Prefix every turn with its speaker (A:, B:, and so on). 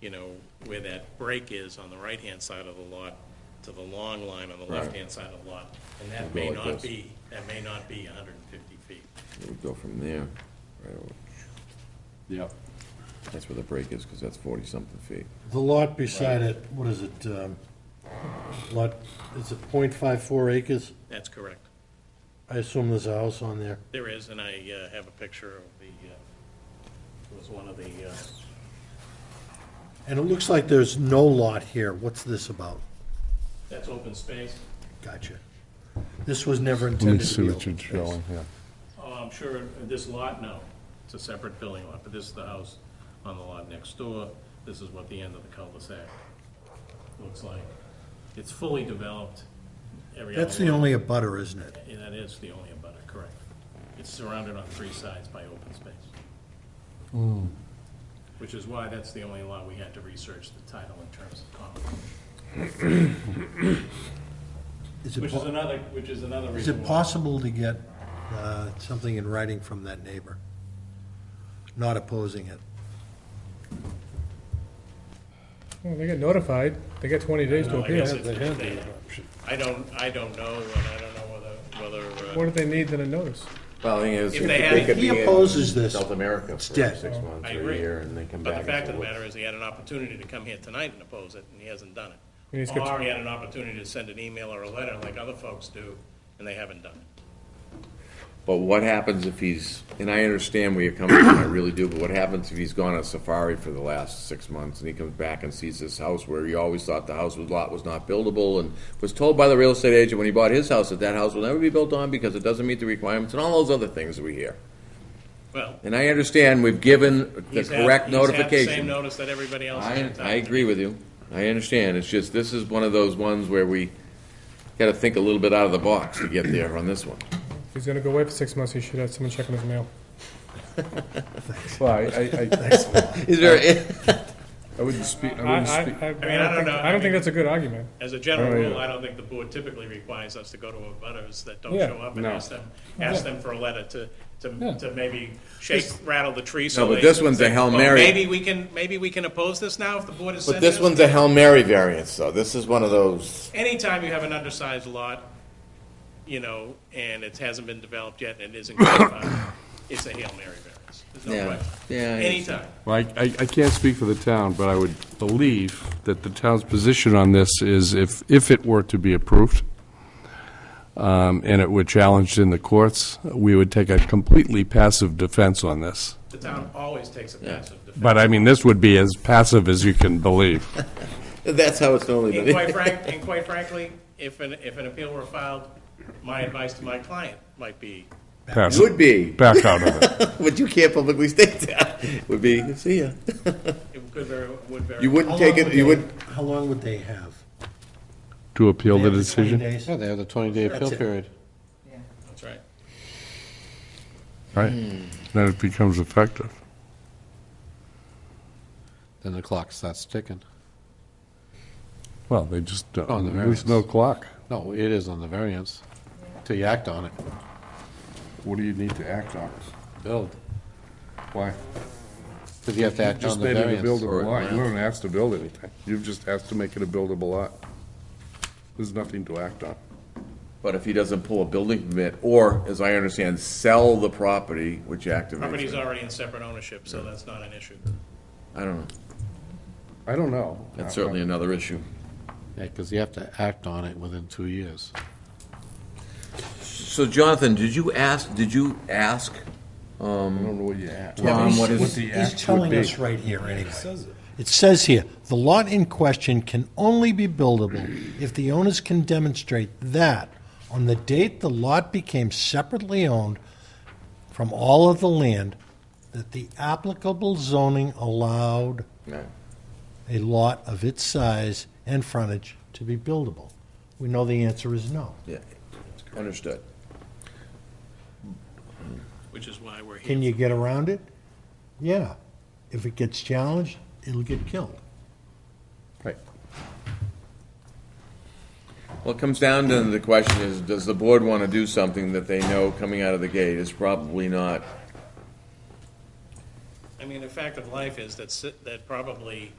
A: you know, where that break is on the right-hand side of the lot to the long line on the
B: Right.
A: left-hand side of the lot. And that
B: Go
A: may
B: like
A: not
B: this.
A: be, that may not be hundred and fifty feet.
B: It would go from there, right over,
C: Yep.
B: that's where the break is, because that's forty-something feet.
D: The lot beside it, what is it, um, lot, is it .54 acres?
A: That's correct.
D: I assume there's a house on there.
A: There is, and I uh, have a picture of the, uh, it was one of the, uh,
D: And it looks like there's no lot here. What's this about?
A: that's open space.
D: Gotcha. This was never
E: Let me
D: intended to
E: see
D: be
E: what
D: open
E: you're
D: space.
E: showing here.
A: Oh, I'm sure, this lot, no, it's a separate building lot, but this is the house on the lot next door. This is what the end of the cul-de-sac looks like. It's fully developed. Every
D: That's
A: other
D: the
A: lot-
D: only abutter, isn't it?
A: And that is the only abutter, correct. It's surrounded on three sides by open space.
D: Hmm.
A: Which is why that's the only lot we had to research the title in terms of common.
D: Is it,
A: Which is
D: po-
A: another, which is another
D: is
A: reason.
D: it
A: why-
D: possible to get, uh, something in writing from that neighbor? Not opposing it.
F: Well, they got notified. They got twenty days to
A: No, I
F: appeal.
A: guess it's
F: They had
A: they-
F: the option.
A: I don't, I don't know, and I don't know whether, whether,
F: What
A: uh,
F: do they need than a notice?
B: Well, the thing is,
A: If they had-
B: could
D: He
B: be in
D: opposes this.
B: South America for
D: It's dead.
B: six months
A: Oh, I
B: or a
A: agree.
B: year, and then come
A: but
B: back.
A: the fact
B: and
A: of the
B: say,
A: matter is, he had an opportunity to come here tonight and oppose it, and he hasn't done
F: And
A: it.
F: he's got-
A: Or he had an opportunity to send an email or a letter like other folks do, and they haven't done it.
B: But what happens if he's, and I understand where you're coming from, I really do, but what happens if he's gone on safari for the last six months and he comes back and sees this house where he always thought the house was, lot was not buildable and was told by the real estate agent when he bought his house that that house will never be built on because it doesn't meet the requirements and all those other things that we hear.
A: Well,
B: And I understand we've given the
A: he's had,
B: correct
A: he's had the same
B: notification.
A: notice that everybody else has.
B: I,
A: had.
B: I agree with you. I understand. It's just, this is one of those ones where we gotta think a little bit out of the box to get there on this one.
F: If he's gonna go away for six months, he should have someone checking his mail.
E: Well, I, I, I-
B: Is there,
E: I wouldn't speak, I
F: I, I,
E: wouldn't
F: I
E: speak.
F: don't
A: I don't
F: think,
A: know.
F: I don't think that's a good argument.
A: As a general
E: Oh, yeah.
A: rule, I don't think the board typically requires us to go to abutters that don't
F: Yeah.
A: show up and
E: No.
A: ask them, ask them for a letter to,
F: Yeah.
A: to, to maybe shake, rattle the tree so
B: No, but
A: they-
B: this one's a
A: say,
B: Hail
A: "Well,
B: Mary."
A: Maybe we can, maybe we can oppose this now if the board has
B: But
A: sent
B: this one's a Hail Mary variance, though. This is one of those,
A: Anytime you have an undersized lot, you know, and it hasn't been developed yet and it isn't codified, it's a Hail Mary variance. There's
B: Yeah.
A: no question.
B: Yeah, I
A: Anytime.
E: Well, I, I I can't speak for the town, but I would believe that the town's position on this is if, if it were to be approved, um, and it were challenged in the courts, we would take a completely passive defense on this.
A: The town always takes a passive defense.
E: But I mean, this would be as passive as you can believe.
B: that's how it's normally
A: And quite
B: done.
A: frank, and quite frankly, if an, if an appeal were filed, my advice to my client might be,
E: Passive,
B: Would be,
E: back out of it.
B: but you can't publicly state that. Would be, see ya.
A: it could very, would very.
B: You
D: How
B: wouldn't take
D: long
B: it, you
D: would
B: would,
D: they- How long would they have?
E: To appeal the
D: They have twenty
E: decision?
D: days?
C: Yeah, they have the twenty-day appeal
D: That's it.
C: period.
A: That's right.
E: Right. Then it becomes effective.
C: Then the clock starts ticking.
E: Well, they just, don't-
C: On the
E: there's no
C: variance.
E: clock.
C: No, it is on the variance, till you act on it.
E: What do you need to act on?
C: Build.
E: Why?
C: Because you have to act
E: Just
C: on the
E: made it a
C: variance.
E: buildable lot, you don't ask to build anything, you've just asked to make it a buildable lot. There's nothing to act on.
B: but if he doesn't pull a building permit, or, as I understand, sell the property, which activates
A: Property's
B: it.
A: already in separate ownership, so that's not an issue.
B: I don't know.
E: I don't know.
B: That's certainly another issue.
C: Yeah, because you have to act on it within two years.
B: So Jonathan, did you ask, did you ask?
E: I don't know what you asked.
B: Tom,
D: he's-
B: what is-
E: what the act
D: He's
E: would
D: telling
E: be.
D: us right here, anyway. It says here, "The lot in question can only be buildable if the owners can demonstrate that on the date the lot became separately owned from all of the land, that the applicable zoning allowed
B: No.
D: a lot of its size and frontage to be buildable." We know the answer is no.
B: Yeah, understood.
A: Which is why we're here.
D: Can you get around it? Yeah. If it gets challenged, it'll get killed.
E: Right.
B: Well, it comes down to the question is, does the board want to do something that they know coming out of the gate is probably not
A: I mean, the fact of life is that, si- that probably